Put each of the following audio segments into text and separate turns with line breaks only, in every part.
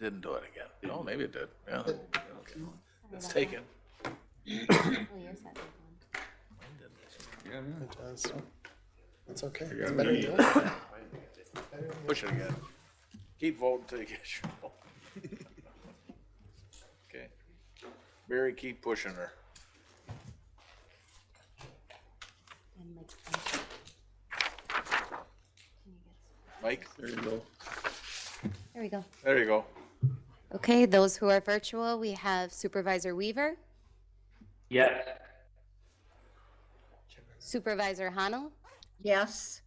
Didn't do it again. No, maybe it did. Yeah. Okay. It's taken.
Well, Oh, yes, that big one.
It does. It's okay.
got
It's better than
me.
doing it.
Push it again. Keep voting till you get your vote. Okay. Barry, keep pushing her.
And like, um, can you get some-
Mike,
There you go.
There we go.
there you go.
Okay, those who are virtual, we have Supervisor Weaver,
Yes.
Supervisor Hanel,
Yes.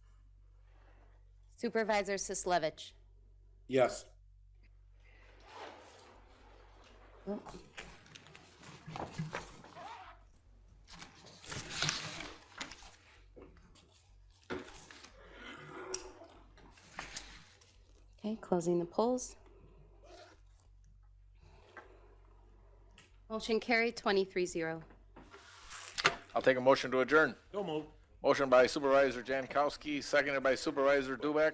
Supervisor Sislevich.
Yes.
Okay, closing the polls. Motion carried, 23-0.
I'll take a motion to adjourn. Motion by Supervisor Jankowski, seconded by Supervisor Dubek.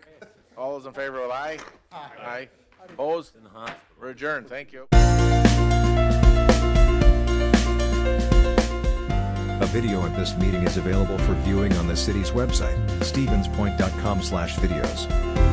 All those in favor, will aye? Aye. Opposed? We're adjourned. Thank you.
A video of this meeting is available for viewing on the city's website, stevenspoint.com/videos.